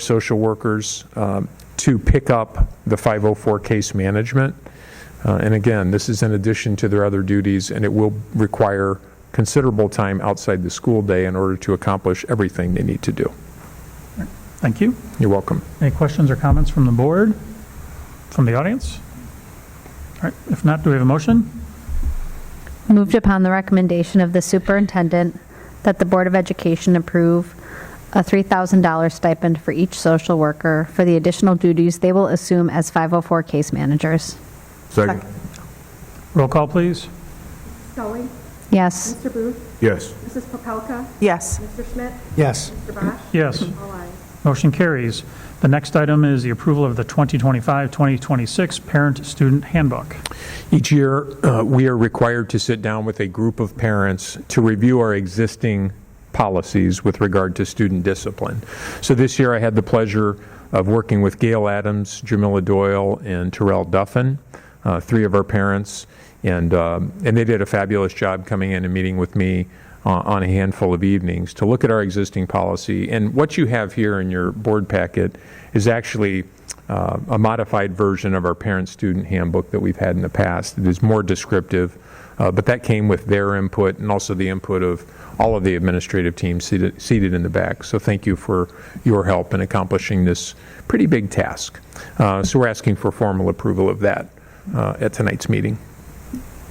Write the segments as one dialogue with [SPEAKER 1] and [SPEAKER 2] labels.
[SPEAKER 1] social workers um, to pick up the 504 case management. Uh, And again, this is in addition to their other duties, and it will require considerable time outside the school day in order to accomplish everything they need to do.
[SPEAKER 2] Thank you.
[SPEAKER 1] You're welcome.
[SPEAKER 2] Any questions or comments from the board, from the audience? All right, if not, do we have a motion?
[SPEAKER 3] Moved upon the recommendation of the superintendent that the Board of Education approve a $3,000 stipend for each social worker for the additional duties they will assume as 504 case managers.
[SPEAKER 4] Second.
[SPEAKER 2] Roll call, please.
[SPEAKER 5] Scully,
[SPEAKER 3] Yes.
[SPEAKER 5] Mr. Booth,
[SPEAKER 4] Yes.
[SPEAKER 5] Mrs. Popelka,
[SPEAKER 6] Yes.
[SPEAKER 5] Mr. Schmidt,
[SPEAKER 7] yes,
[SPEAKER 5] Mr. Bosch.
[SPEAKER 2] Yes.
[SPEAKER 5] All ayes.
[SPEAKER 2] Motion carries. The next item is the approval of the 2025-2026 Parent-Student Handbook.
[SPEAKER 1] Each year, uh, we are required to sit down with a group of parents to review our existing policies with regard to student discipline. So this year, I had the pleasure of working with Gail Adams, Jamila Doyle, and Terrell Duffin, uh, three of our parents, and, um, and they did a fabulous job coming in and meeting with me uh, on a handful of evenings to look at our existing policy. And what you have here in your board packet is actually uh, a modified version of our parent-student handbook that we've had in the past. It is more descriptive, uh, but that came with their input and also the input of all of the administrative teams seated seated in the back. So thank you for your help in accomplishing this pretty big task. Uh, So we're asking for formal approval of that uh, at tonight's meeting.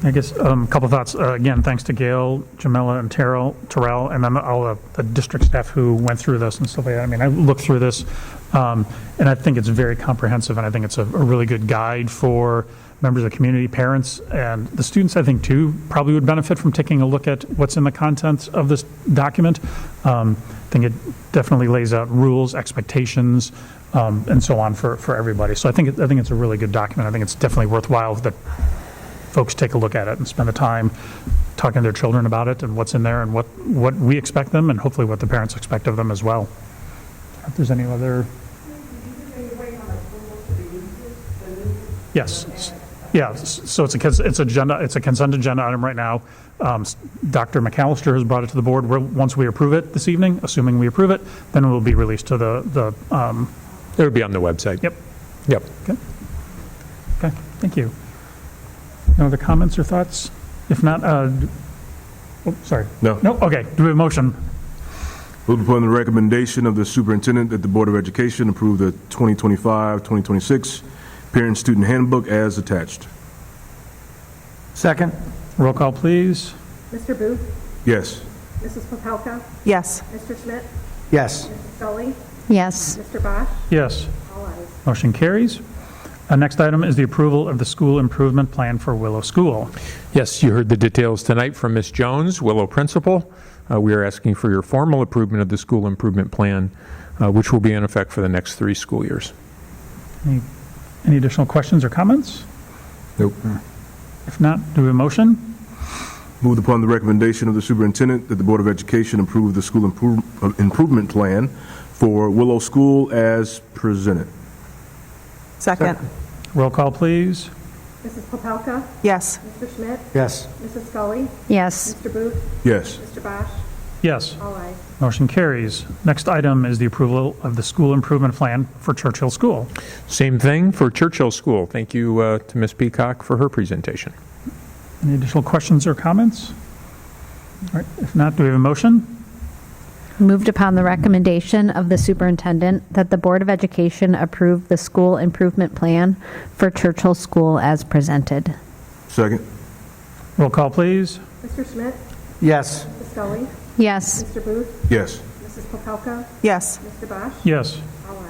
[SPEAKER 2] I guess um, a couple thoughts. Uh, Again, thanks to Gail, Jamila, and Terrell, Terrell, and then all the- the district staff who went through this and stuff like that. I mean, I looked through this, um, and I think it's very comprehensive, and I think it's a a really good guide for members of the community, parents, and the students, I think, too, probably would benefit from taking a look at what's in the contents of this document. Um, I think it definitely lays out rules, expectations, um, and so on for for everybody. So I think, it- I think it's a really good document. I think it's definitely worthwhile that folks take a look at it and spend the time talking to their children about it and what's in there and what, what we expect them and hopefully what the parents expect of them as well. If there's any other. Yes, s- yeah, s- so it's a, cons- it's agenda, it's a consent agenda item right now. Um, s- Dr. McAllister has brought it to the board, We'll- once we approve it this evening, assuming we approve it, then it will be released to the, the, um,
[SPEAKER 1] It'll be on the website.
[SPEAKER 2] yep,
[SPEAKER 1] Yep.
[SPEAKER 2] Okay, thank you. No other comments or thoughts? If not, uh, d- oh, sorry.
[SPEAKER 4] No.
[SPEAKER 2] No, okay, do we have a motion?
[SPEAKER 4] Moved upon the recommendation of the superintendent that the Board of Education approve the 2025-2026 Parent-Student Handbook as attached.
[SPEAKER 7] second,
[SPEAKER 2] Roll call, please.
[SPEAKER 5] Mr. Booth,
[SPEAKER 4] Yes.
[SPEAKER 5] Mrs. Popelka,
[SPEAKER 6] Yes.
[SPEAKER 5] Mr. Schmidt,
[SPEAKER 7] yes,
[SPEAKER 5] Scully,
[SPEAKER 3] Yes.
[SPEAKER 5] Mr. Bosch.
[SPEAKER 2] Yes,
[SPEAKER 5] All ayes.
[SPEAKER 2] motion carries. Uh, Next item is the approval of the school improvement plan for Willow School.
[SPEAKER 1] Yes, you heard the details tonight from Ms. Jones, Willow Principal. Uh, We are asking for your formal approval of the school improvement plan, uh, which will be in effect for the next three school years.
[SPEAKER 2] Any any additional questions or comments?
[SPEAKER 4] Nope.
[SPEAKER 2] If not, do we have a motion?
[SPEAKER 4] Moved upon the recommendation of the superintendent that the Board of Education approve the school improve- uh, improvement plan for Willow School as presented.
[SPEAKER 6] Second.
[SPEAKER 2] Roll call, please.
[SPEAKER 5] Mrs. Popelka,
[SPEAKER 6] Yes.
[SPEAKER 5] Mr. Schmidt,
[SPEAKER 7] yes.
[SPEAKER 5] Mrs. Scully,
[SPEAKER 3] Yes.
[SPEAKER 5] Mr. Booth,
[SPEAKER 4] Yes.
[SPEAKER 5] Mr. Bosch.
[SPEAKER 2] Yes,
[SPEAKER 5] All ayes.
[SPEAKER 2] motion carries. Next item is the approval of the school improvement plan for Churchill School.
[SPEAKER 1] Same thing for Churchill School. Thank you uh, to Ms. Peacock for her presentation.
[SPEAKER 2] Any additional questions or comments? All right, if not, do we have a motion?
[SPEAKER 3] Moved upon the recommendation of the superintendent that the Board of Education approve the school improvement plan for Churchill School as presented.
[SPEAKER 4] Second.
[SPEAKER 2] Roll call, please.
[SPEAKER 5] Mr. Schmidt,
[SPEAKER 7] Yes.
[SPEAKER 5] Mrs. Scully,
[SPEAKER 3] Yes.
[SPEAKER 5] Mr. Booth,
[SPEAKER 4] Yes.
[SPEAKER 5] Mrs. Popelka,
[SPEAKER 6] Yes.
[SPEAKER 5] Mr. Bosch.
[SPEAKER 2] Yes,
[SPEAKER 5] All ayes.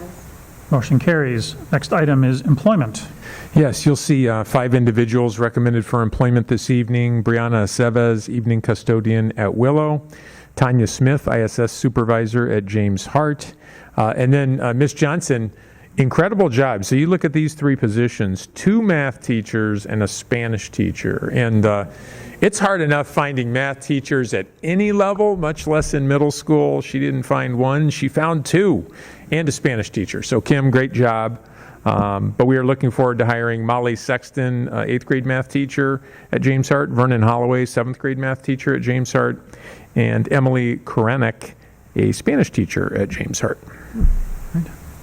[SPEAKER 2] motion carries. Next item is employment.
[SPEAKER 1] Yes, you'll see uh, five individuals recommended for employment this evening. Brianna Aceves, evening custodian at Willow. Tanya Smith, ISS supervisor at James Hart. Uh, And then uh, Ms. Johnson, incredible job. So you look at these three positions, two math teachers and a Spanish teacher. And uh, it's hard enough finding math teachers at any level, much less in middle school. She didn't find one, she found two, and a Spanish teacher. So Kim, great job. Um, But we are looking forward to hiring Molly Sexton, uh, eighth grade math teacher at James Hart, Vernon Holloway, seventh grade math teacher at James Hart, and Emily Korenik, a Spanish teacher at James Hart.